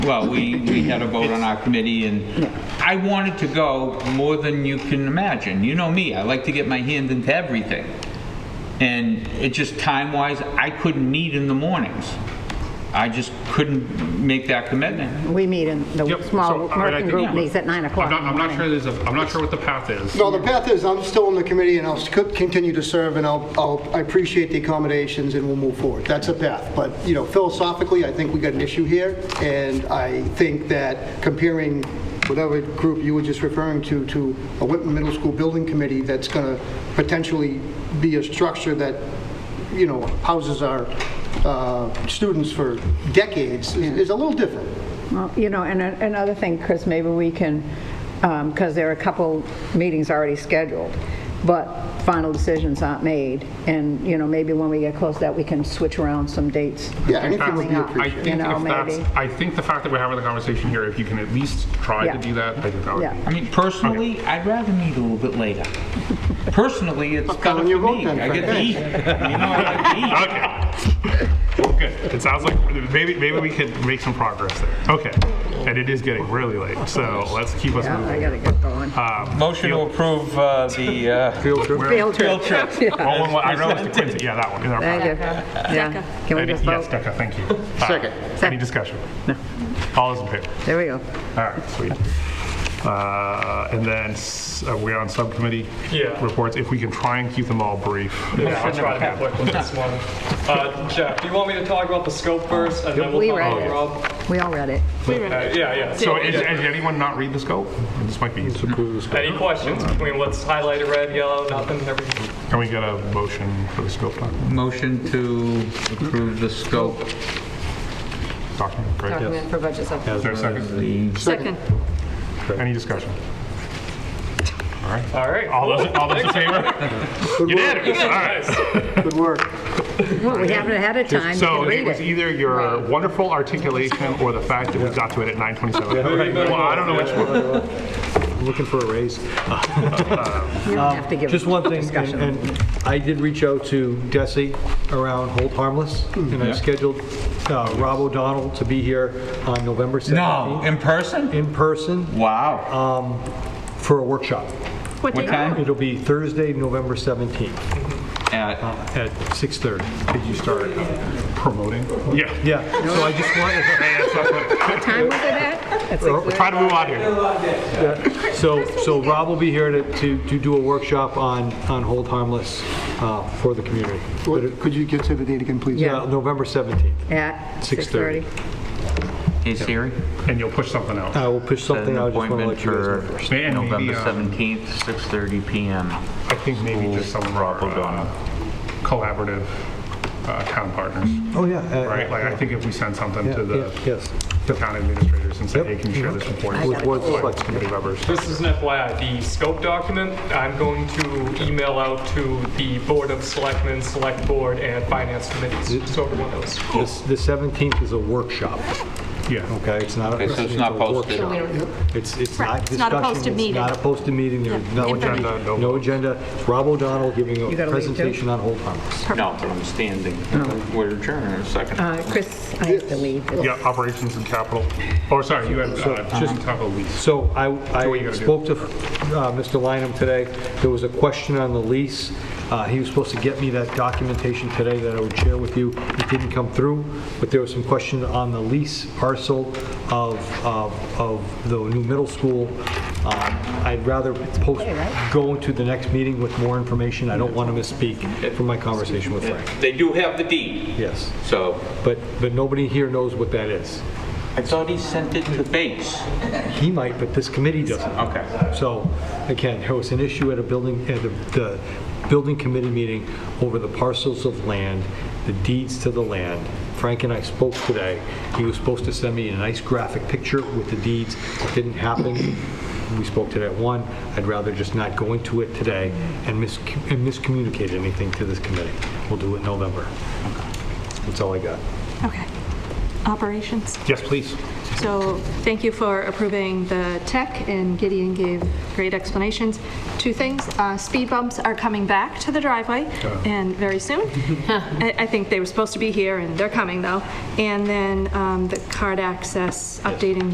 Well, we, we had a vote on our committee, and I wanted to go more than you can imagine. You know me, I like to get my hand into everything. And it just, time-wise, I couldn't meet in the mornings. I just couldn't make that commitment. We meet in, the Yep, small so, I mean, I working think- group meets at 9 o'clock I'm in the not, I'm not sure morning. there's a, I'm not sure what the path is. No, the path is, I'm still on the committee, and I'll sc- continue to serve, and I'll, I'll- I appreciate the accommodations, and we'll move forward. That's a path, but, you know, philosophically, I think we got an issue here, and I think that comparing whatever group you were just referring to, to a Whitman Middle School Building Committee that's going to potentially be a structure that, you know, houses our uh, students for decades is is a little different. Well, You know, and a- another thing, Chris, maybe we can, because there are a couple meetings already scheduled, but final decisions aren't made, and, you know, maybe when we get close to that, we can switch around some dates. Yeah, anything would Coming be up. I appreciated. You think know, if that's, maybe. I think the fact that we're having the conversation here, if you can at least try Yeah. to do that, I think that would Yeah. be. I mean, personally, I'd rather meet a little bit later. Personally, it's better on your for vote me. then, I get to Frank. eat. You know, I get to eat. Okay. Good. It sounds like maybe, maybe we could make some progress there. Okay. And it is getting really late, so let's keep us Yeah, I moving. gotta get going. Uh, Motion to approve uh, the, uh, Field trip. Field trip. Yeah. All in one- Oh, I know it's the Quincy, yeah, that one. in our Thank you. packet. Yeah. Can we Any- just Yes, vote? Decca, thank you. Uh, Second. Any discussion? All those in favor? There we go. All right, sweet. Uh, And then, s- are we on subcommittee? Yeah. Reports, if we can try and keep them all brief. Yeah, I'll try to conflict with this one. Uh, Jeff, do you want me to talk about the scope first, and then We we'll talk read about it. Rob? We all read it. Uh, Yeah, yeah. So So is- has anyone not read the scope? This might be, can any questions between what's highlighted, red, yellow, nothing, everything? we get a motion for the scope doc- Motion to approve the scope document? Great. Document for budget Is supplement. there a of second? the Second. Any discussion? All right. All those, all those in favor? Unanimous, all right. Nice. Good work. Well, we have it ahead of time, you So can it read was it. either your wonderful articulation or the fact that we got to it at 9:27. Well, I don't know which one. Looking for a raise. You don't have to give Just one thing, discussion. and and I did reach out to Desi around Hold Harmless, and I scheduled uh, Rob O'Donnell to be here on November No, 17th in person? in person Wow. um, for a workshop. What time? It'll be Thursday, November 17th At at 6:30. Did you start uh, promoting? Yeah. Yeah, so I just wanted, Hey, that's not good. What time was it at? At Or- 6:30? Try to move on here. so, so Rob will be here to, to to do a workshop on, on Hold Harmless uh, for the community. But it- Could you get to the date again, please? Yeah. uh, November 17th. At 6:30. 6:30. Hey Siri, And you'll push something out. I will push set something an out, I just want to appointment let you guys know for first. And maybe, November uh, 17th, 6:30 PM. I think Oh. maybe just some of our uh, collaborative uh, town partners, Oh, yeah. uh, right? Like, I think if we send something yeah, to yeah, the Yes. the town administrators and say, Yep. hey, can you share this report? I With gotta boards go. and selects Committee members. This is an FYI, the scope document, I'm going to email out to the Board of Selectmen, Select Board, and Finance Committees, so everyone knows. This- The 17th is a workshop, Yeah. okay? It's not. a- Okay, so it's not a posted. workshop. We don't- It's, it's Right, not it's not a discussion. posted It's not a meeting. posted meeting. There's no Information. agenda. No agenda. It's Rob O'Donnell giving You a gotta leave, too? presentation on hold harmless. No, but I'm standing. We're adjourned in a second. Uh, Chris, I have to leave. It's- Yeah, operations and capital. Oh, sorry, you had, uh, just talk about lease. So I, what you I gotta do. spoke to uh, Mr. Lineham today. There was a question on the lease. Uh, He was supposed to get me that documentation today that I would share with you. It didn't come through, but there was some question on the lease parcel of, of, of the new middle school. Um, I'd rather post, go into the next meeting with more information. I don't want to misspeak from my conversation with Frank. They do have the deed, Yes, so. but, but nobody here knows what that is. I thought he sent it to Bates. He might, but this committee doesn't. Okay. So, again, there was an issue at a building, at the, the building committee meeting over the parcels of land, the deeds to the land. Frank and I spoke today. He was supposed to send me a nice graphic picture with the deeds. It didn't happen. We spoke today at one. I'd rather just not go into it today and mis, and miscommunicate anything to this committee. We'll do it in November. That's all I got. Okay. Operations. Yes, please. So thank you for approving the tech, and Gideon gave great explanations. Two things, uh, speed bumps are coming back to the driveway, and very soon. I I think they were supposed to be here, and they're coming, though. And then um, the card access, updating